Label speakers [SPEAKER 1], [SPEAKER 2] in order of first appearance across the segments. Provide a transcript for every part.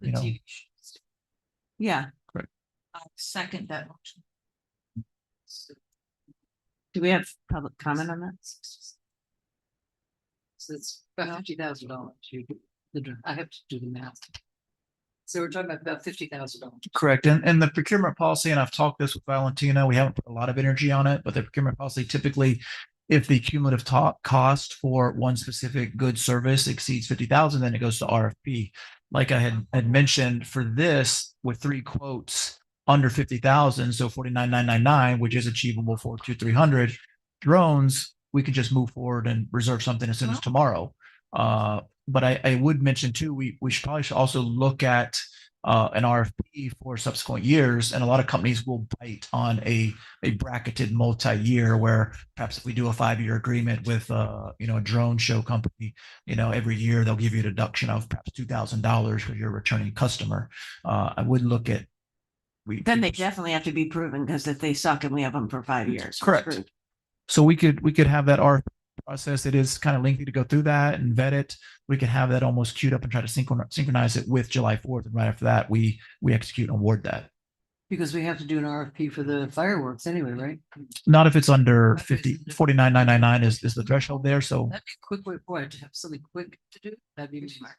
[SPEAKER 1] the
[SPEAKER 2] you know.
[SPEAKER 1] TV shows. Yeah.
[SPEAKER 2] Correct.
[SPEAKER 1] I second that motion. Do we have public comment on that?
[SPEAKER 3] So it's about fifty thousand dollars. I have to do the math. So we're talking about about fifty thousand dollars.
[SPEAKER 2] Correct. And, and the procurement policy, and I've talked this with Valentina, we haven't put a lot of energy on it, but the procurement policy typically, if the cumulative to- cost for one specific good service exceeds fifty thousand, then it goes to RFP. Like I had, had mentioned for this with three quotes under fifty thousand, so forty-nine, nine, nine, nine, which is achievable for two, three hundred drones, we could just move forward and reserve something as soon as tomorrow. Uh, but I, I would mention too, we, we should probably should also look at uh, an RFP for subsequent years, and a lot of companies will bite on a a bracketed multi-year where perhaps if we do a five-year agreement with uh, you know a drone show company, you know every year they'll give you a deduction of perhaps two thousand dollars for your returning customer. Uh, I would look at we
[SPEAKER 1] Then they definitely have to be proven because if they suck and we have them for five years. we're
[SPEAKER 2] Correct.
[SPEAKER 1] screwed.
[SPEAKER 2] So we could, we could have that RFP process. It is kind of lengthy to go through that and vet it. We could have that almost queued up and try to synchronize, synchronize it with July fourth. And right after that, we, we execute and award that.
[SPEAKER 3] Because we have to do an RFP for the fireworks anyway, right?
[SPEAKER 2] Not if it's under
[SPEAKER 3] Okay, so
[SPEAKER 2] fifty,
[SPEAKER 3] the-
[SPEAKER 2] forty-nine, nine, nine, nine is, is the threshold there. So
[SPEAKER 3] That'd be a quick way, boy, to have something quick to do, that'd be smart.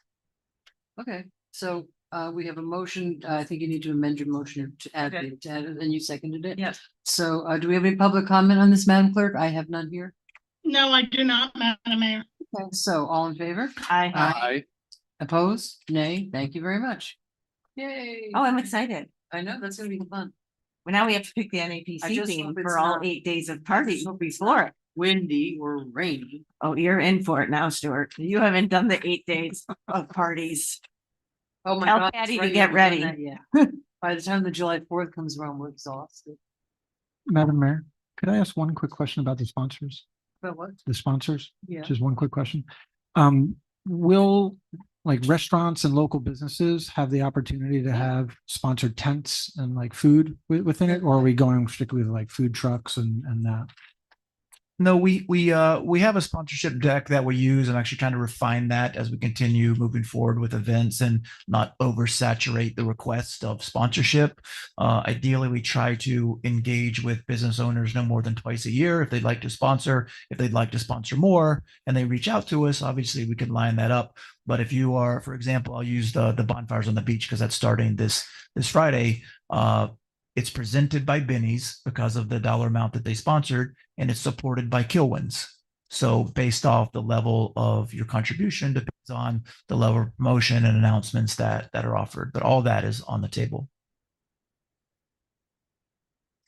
[SPEAKER 3] Okay, so uh, we have a motion, Uh, I think you need to amend your motion to add,
[SPEAKER 1] Okay.
[SPEAKER 3] the- to add it, and you seconded it.
[SPEAKER 1] Yes.
[SPEAKER 3] So uh, do we have any public comment on this, Madam Clerk? I have none here.
[SPEAKER 4] No, I do not, Madam Mayor.
[SPEAKER 3] Okay, so all in favor?
[SPEAKER 5] Uh,
[SPEAKER 1] I,
[SPEAKER 3] Aye. Opposed? Nay, thank you very much. Yay.
[SPEAKER 1] oh, I'm excited.
[SPEAKER 3] I know, that's gonna be fun.
[SPEAKER 1] Well, now we have to pick the NAPC
[SPEAKER 3] just
[SPEAKER 1] theme
[SPEAKER 3] hope it's
[SPEAKER 1] for all
[SPEAKER 3] not-
[SPEAKER 1] eight days of
[SPEAKER 3] I
[SPEAKER 1] party
[SPEAKER 3] just hope it's
[SPEAKER 1] before. it.
[SPEAKER 3] Windy or rainy.
[SPEAKER 1] Oh, you're in for it now, Stuart. You haven't done the eight days of parties.
[SPEAKER 3] Oh my
[SPEAKER 1] Tell
[SPEAKER 3] God.
[SPEAKER 1] Patty
[SPEAKER 3] it's
[SPEAKER 1] to
[SPEAKER 3] raining,
[SPEAKER 1] get
[SPEAKER 3] we've done
[SPEAKER 1] ready.
[SPEAKER 3] that, Yeah. By the time the July fourth comes around, we're exhausted.
[SPEAKER 6] Madam Mayor, could I ask one quick question about the sponsors,
[SPEAKER 3] But what?
[SPEAKER 6] the sponsors?
[SPEAKER 3] Yeah.
[SPEAKER 6] Just one quick question. Um, will like restaurants and local businesses have the opportunity to have sponsored tents and like food wi- within it? Or are we going strictly with like food trucks and, and that?
[SPEAKER 2] No, we we uh we have a sponsorship deck that we use. I'm actually trying to refine that as we continue moving forward with events and not oversaturate the request of sponsorship. Uh, ideally, we try to engage with business owners no more than twice a year if they'd like to sponsor. If they'd like to sponsor more and they reach out to us, obviously we can line that up. But if you are, for example, I'll use the the bonfires on the beach because that's starting this this Friday. Uh, it's presented by Benny's because of the dollar amount that they sponsored and it's supported by Kilwins. So based off the level of your contribution depends on the level of promotion and announcements that that are offered, but all that is on the table.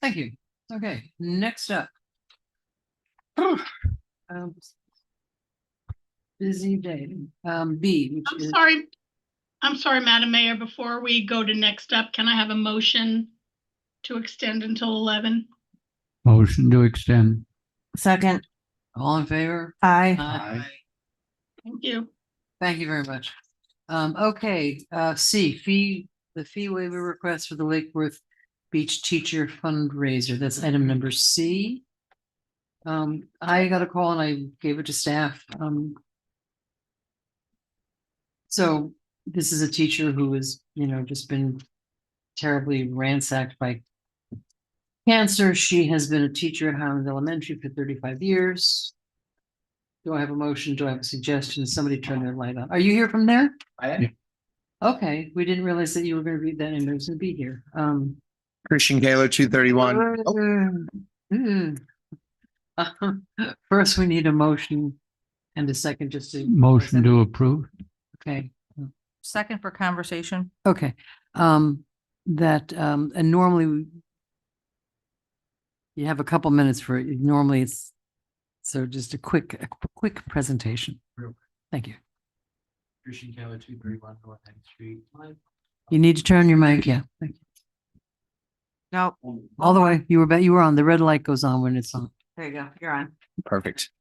[SPEAKER 3] Thank you. Okay, next up. Um, Busy day. Um, B,
[SPEAKER 4] I'm
[SPEAKER 3] which is,
[SPEAKER 4] sorry. I'm sorry, Madam Mayor. Before we go to next up, can I have a motion to extend until eleven?
[SPEAKER 7] Motion to extend.
[SPEAKER 1] Second,
[SPEAKER 3] all in favor?
[SPEAKER 5] Uh,
[SPEAKER 1] I,
[SPEAKER 3] Aye.
[SPEAKER 4] Thank you.
[SPEAKER 3] Thank you very much. Um, okay, uh, C, fee, the fee waiver request for the Lake Worth Beach Teacher fundraiser. That's item number C. Um, I got a call and I gave it to staff. Um. So this is a teacher who has, you know, just been terribly ransacked by cancer. She has been a teacher at Highland Elementary for thirty-five years. Do I have a motion? Do I have a suggestion? Somebody turn their light on. Are you here from there?
[SPEAKER 2] I
[SPEAKER 6] am.
[SPEAKER 3] Okay, we didn't realize that you were gonna read that and there's gonna be here. Um.
[SPEAKER 8] Christian Gaylor, two
[SPEAKER 3] Mm-hmm.
[SPEAKER 8] thirty-one.
[SPEAKER 3] mm, mm. First, we need a motion and a second just to.
[SPEAKER 7] Motion to approve.
[SPEAKER 3] Okay,
[SPEAKER 5] Second for conversation.
[SPEAKER 3] okay. Um, that, um, and normally we- you have a couple minutes for, it. normally it's, so just a quick, a quick presentation. Thank you.
[SPEAKER 7] Christian Keller, two thirty-one North End Street.
[SPEAKER 3] You need to turn your mic, yeah. Thank you.
[SPEAKER 1] no,
[SPEAKER 3] All the way, you were, ba- you were on, the red light goes on when it's on.
[SPEAKER 1] there you go, you're on.
[SPEAKER 8] Perfect.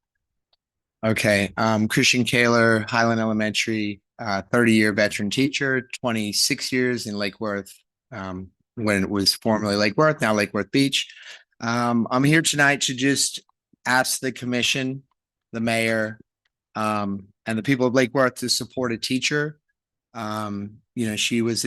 [SPEAKER 8] Okay, um, Christian Kaler, Highland Elementary, uh, thirty-year veteran teacher, twenty-six years in Lake Worth. Um, when it was formerly Lake Worth, now Lake Worth Beach. Um, I'm here tonight to just ask the commission, the mayor, um, and the people of Lake Worth to support a teacher. Um, you know, she was a